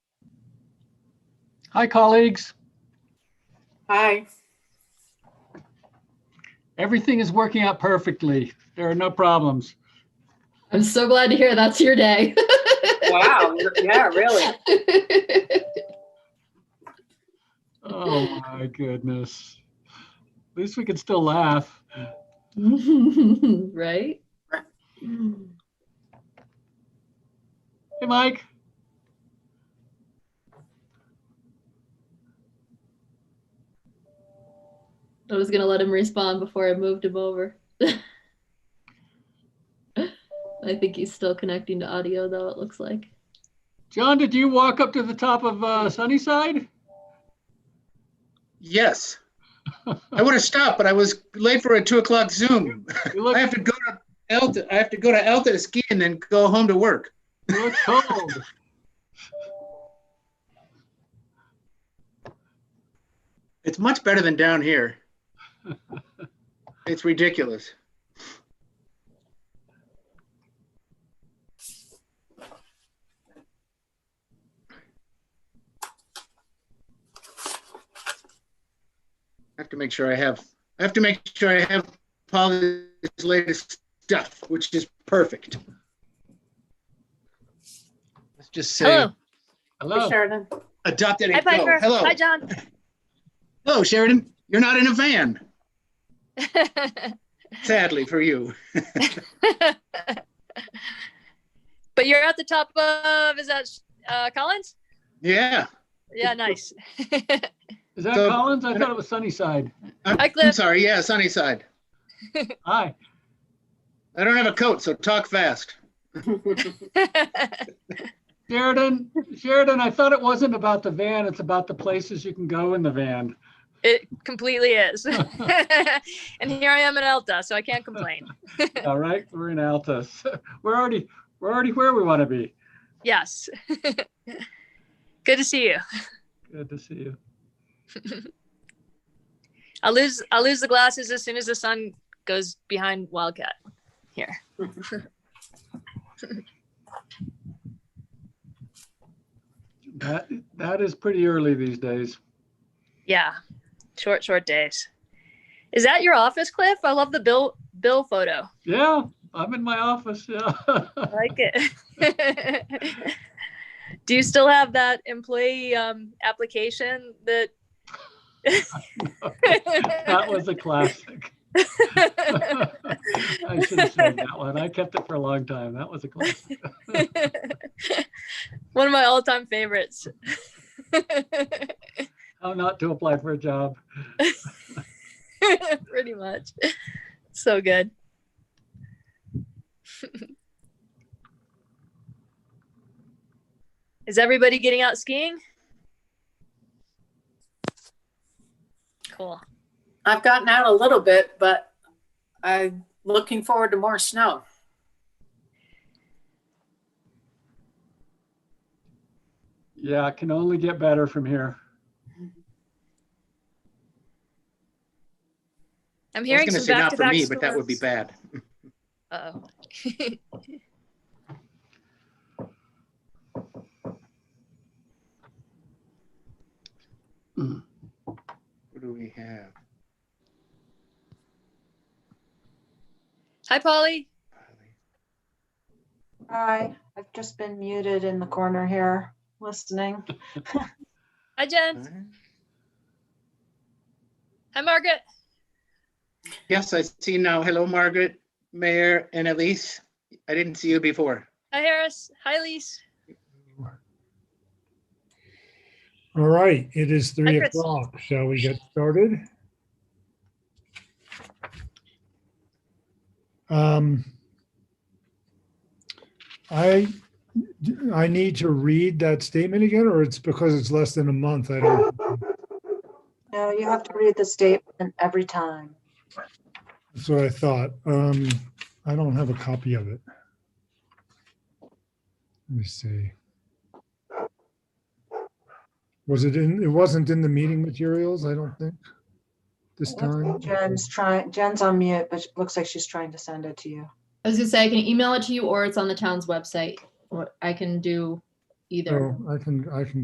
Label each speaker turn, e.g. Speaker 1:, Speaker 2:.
Speaker 1: Hi, colleagues.
Speaker 2: Hi.
Speaker 1: Everything is working out perfectly. There are no problems.
Speaker 3: I'm so glad to hear that's your day.
Speaker 2: Wow. yeah, really.
Speaker 1: Oh, my goodness. At least we can still laugh.
Speaker 3: right?
Speaker 1: Hey, Mike.
Speaker 3: I was gonna let him respond before I moved him over. I think he's still connecting to audio though, it looks like.
Speaker 1: John, did you walk up to the top of uh, Sunnyside?
Speaker 4: Yes. I would have stopped, but I was late for a two o'clock Zoom.
Speaker 1: You
Speaker 4: I
Speaker 1: look,
Speaker 4: have to go to Elta, I have to go to Elta to ski and then go home to work.
Speaker 1: you look cold.
Speaker 4: It's much better than down here. It's ridiculous. I have to make sure I have, I have to make sure I have Polly's latest stuff, which is perfect. Let's just say,
Speaker 5: Hello.
Speaker 1: Hello.
Speaker 2: Sheridan.
Speaker 4: adopt it
Speaker 5: Hi,
Speaker 4: and go.
Speaker 5: Piper.
Speaker 4: Hello,
Speaker 5: Hi, John.
Speaker 4: hello Sheridan. You're not in a van, sadly for you.
Speaker 5: but you're at the top of, is that uh, Collins?
Speaker 4: Yeah.
Speaker 5: Yeah, nice.
Speaker 1: Is that
Speaker 4: So-
Speaker 1: Collins? I thought it was Sunnyside.
Speaker 4: I'm,
Speaker 5: Hi, Cliff.
Speaker 4: I'm sorry. Yeah, Sunnyside.
Speaker 1: Hi.
Speaker 4: I don't have a coat, so talk fast.
Speaker 1: Sheridan, Sheridan, I thought it wasn't about the van. It's about the places you can go in the van.
Speaker 5: it completely is. and here I am at Elta, so I can't complain.
Speaker 1: All right, we're in Altus. We're already, we're already where we want to be.
Speaker 5: Yes. Good to see you.
Speaker 1: Good to see you.
Speaker 5: I'll lose I'll lose the glasses as soon as the sun goes behind Wildcat here.
Speaker 1: That, that is pretty early these days.
Speaker 5: Yeah. Short, short days. Is that your office, Cliff? I love the Bill Bill photo.
Speaker 1: Yeah, I'm in my office. Yeah.
Speaker 5: I like it. Do you still have that employee um, application that?
Speaker 1: that was a classic. I should have said that one. I kept it for a long time. That was a classic.
Speaker 5: One of my all-time favorites.
Speaker 1: How not to apply for a job.
Speaker 5: Pretty much. So good. Is everybody getting out skiing? Cool.
Speaker 2: I've gotten out a little bit, but I'm looking forward to more snow.
Speaker 1: Yeah, it can only get better from here.
Speaker 5: I'm
Speaker 4: I was
Speaker 5: hearing
Speaker 4: going to
Speaker 5: some
Speaker 4: say not for
Speaker 5: back-to-back
Speaker 4: me, but that would be
Speaker 5: storms.
Speaker 4: bad.
Speaker 5: Uh-oh.
Speaker 4: What do we have?
Speaker 5: Hi, Polly.
Speaker 6: Hi, I've just been muted in the corner here, listening.
Speaker 5: Hi, Jen. Hi, Margaret.
Speaker 4: Yes, I see now. Hello, Margaret, Mayor, and Elise. I didn't see you before.
Speaker 5: Hi, Harris. Hi, Lise.
Speaker 7: All right, it is three
Speaker 5: Chris.
Speaker 7: o'clock. Shall we get started? Um, I, I need to read that statement again, or it's because it's less than a month. I don't,
Speaker 6: No, you have to read the statement every time.
Speaker 7: that's what I thought. Um, I don't have a copy of it. Let me see. Was it in, it wasn't in the meeting materials, I don't think, this time.
Speaker 6: Jen's trying, Jen's on mute, but it looks like she's trying to send it to you.
Speaker 3: I was gonna say I can email it to you or it's on the town's website. Or I can do either.
Speaker 7: Oh, I can, I can